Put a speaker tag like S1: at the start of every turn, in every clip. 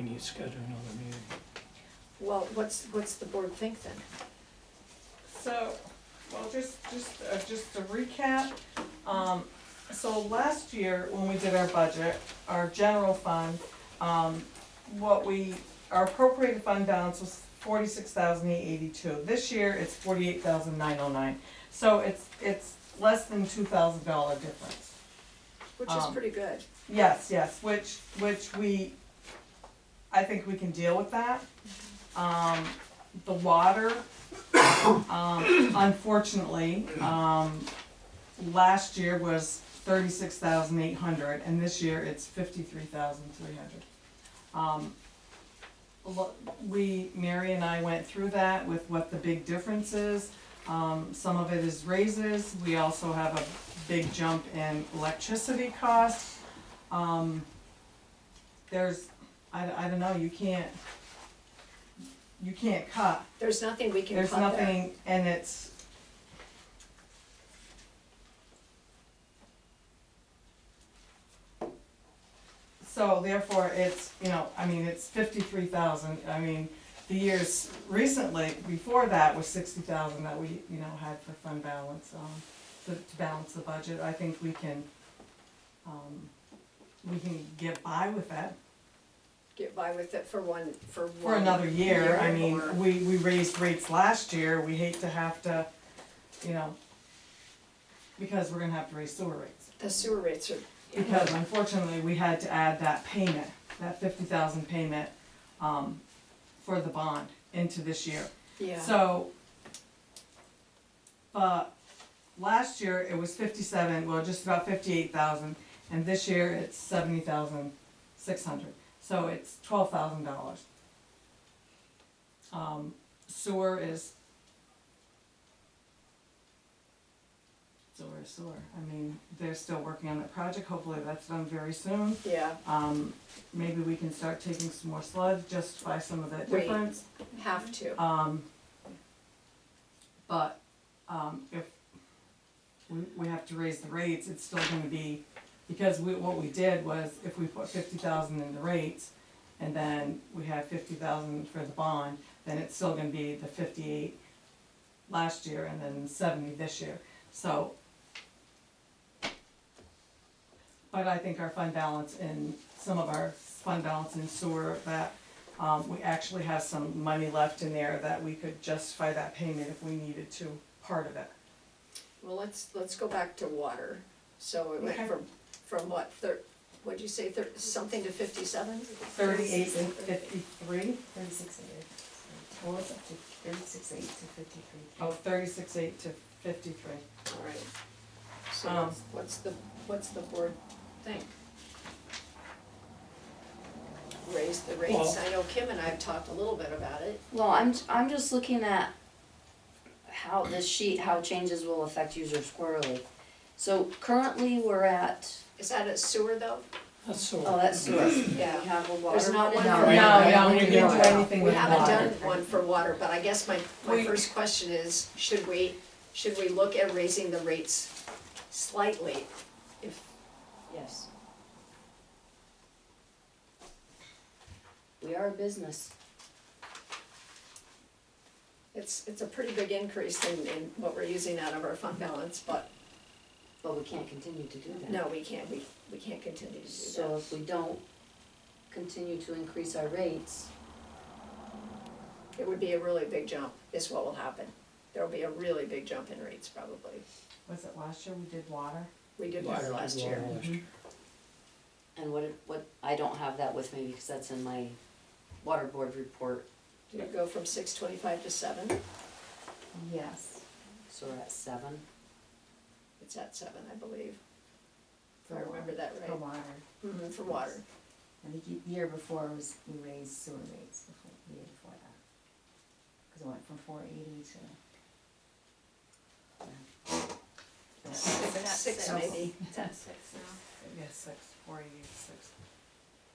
S1: need to schedule another meeting.
S2: Well, what's, what's the board think then?
S3: So, well, just, just, uh, just to recap, um, so last year, when we did our budget, our general fund, um, what we, our appropriated fund balance was forty-six thousand eight eighty-two. This year, it's forty-eight thousand nine oh nine, so it's, it's less than two thousand dollar difference.
S2: Which is
S3: Um,
S2: pretty good.
S3: Yes, yes, which, which we, I think we can deal with that. Um, the water, um, unfortunately, um, last year was thirty-six thousand eight hundred, and this year it's fifty-three thousand three hundred. Um, lo- we, Mary and I went through that with what the big difference is. Um, some of it is raises, we also have a big jump in electricity costs. Um, there's, I, I don't know, you can't, you can't cut,
S2: There's nothing we can
S3: there's
S2: cut there.
S3: nothing, and it's. So therefore, it's, you know, I mean, it's fifty-three thousand, I mean, the years recently, before that was sixty thousand that we, you know, had for fund balance, um, to, to balance the budget, I think we can, um, we can get by with that.
S2: Get by with it for one, for one.
S3: For another year, I mean,
S2: or-
S3: we, we raised rates last year, we hate to have to, you know, because we're gonna have to raise sewer rates.
S2: The sewer rates are.
S3: Because unfortunately, we had to add that payment, that fifty thousand payment, um, for the bond into this year.
S2: Yeah,
S3: So, but last year it was fifty-seven, well, just about fifty-eight thousand, and this year it's seventy thousand six hundred, so it's twelve thousand dollars. Um, sewer is. Sewer is sewer, I mean, they're still working on that project, hopefully that's done very soon.
S2: yeah,
S3: Um, maybe we can start taking some more sludge, justify some of that
S2: Wait.
S3: difference.
S2: have to.
S3: Um, but, um, if we, we have to raise the rates, it's still gonna be, because we, what we did was, if we put fifty thousand in the rates, and then we have fifty thousand for the bond, then it's still gonna be the fifty-eight last year and then seventy this year, so. But I think our fund balance in, some of our fund balance in sewer, that um, we actually have some money left in there that we could justify that payment if we needed to, part of it.
S2: Well, let's, let's go back to water. So it went
S3: Okay.
S2: from, from what, thir, what'd you say, thir, something to fifty-seven?
S3: Thirty-eight and fifty-three?
S4: Thirty-six eight,
S3: What was it?
S4: thirty-six eight to fifty-three.
S3: Oh, thirty-six eight to fifty-three.
S2: All right. So
S3: Um,
S2: what's- what's the, what's the board think? Raise the rates.
S1: Well-
S2: I know Kim and I have talked a little bit about it.
S4: Well, I'm, I'm just looking at how this sheet, how changes will affect users quarterly. So currently, we're at,
S2: Is that a sewer though?
S1: That's
S4: oh,
S1: so,
S4: that's sewer, we
S2: Yeah.
S4: have a water.
S2: There's not one
S4: No,
S2: for
S4: we
S2: now.
S4: haven't
S3: No,
S4: done
S3: no, we
S4: it.
S3: didn't do anything
S2: We
S3: with
S2: haven't
S3: water.
S2: done one for water, but I guess my, my
S3: We-
S2: first question is, should we, should we look at raising the rates slightly? If,
S4: Yes. We are a business.
S2: it's, it's a pretty big increase in, in what we're using out of our fund balance, but
S4: But we can't continue to do that.
S2: no, we can't, we, we can't continue to do
S4: So
S2: that.
S4: if we don't continue to increase our rates,
S2: It would be a really big jump, is what will happen. There'll be a really big jump in rates probably.
S3: Was it last year we did water?
S2: We did water last year.
S4: and what, what, I don't have that with me because that's in my water board report,
S2: Did it go from six twenty-five to seven?
S5: Yes,
S4: so we're at seven.
S2: It's at seven, I believe, if
S5: for
S2: I
S5: water,
S2: remember that
S5: for
S2: right.
S5: water.
S2: Mhm, For water.
S5: I think the year before was, we raised sewer rates before, the year before that. Cause it went from four eighty to.
S2: Six maybe.
S3: Yes, six, four eighty-eight, six.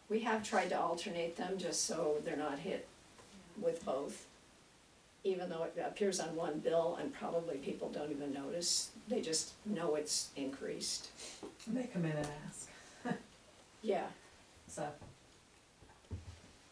S2: We have tried to alternate them just so they're not hit with both. Even though it appears on one bill and probably people don't even notice, they just know it's increased.
S3: And they come in and ask,
S2: Yeah,
S3: so.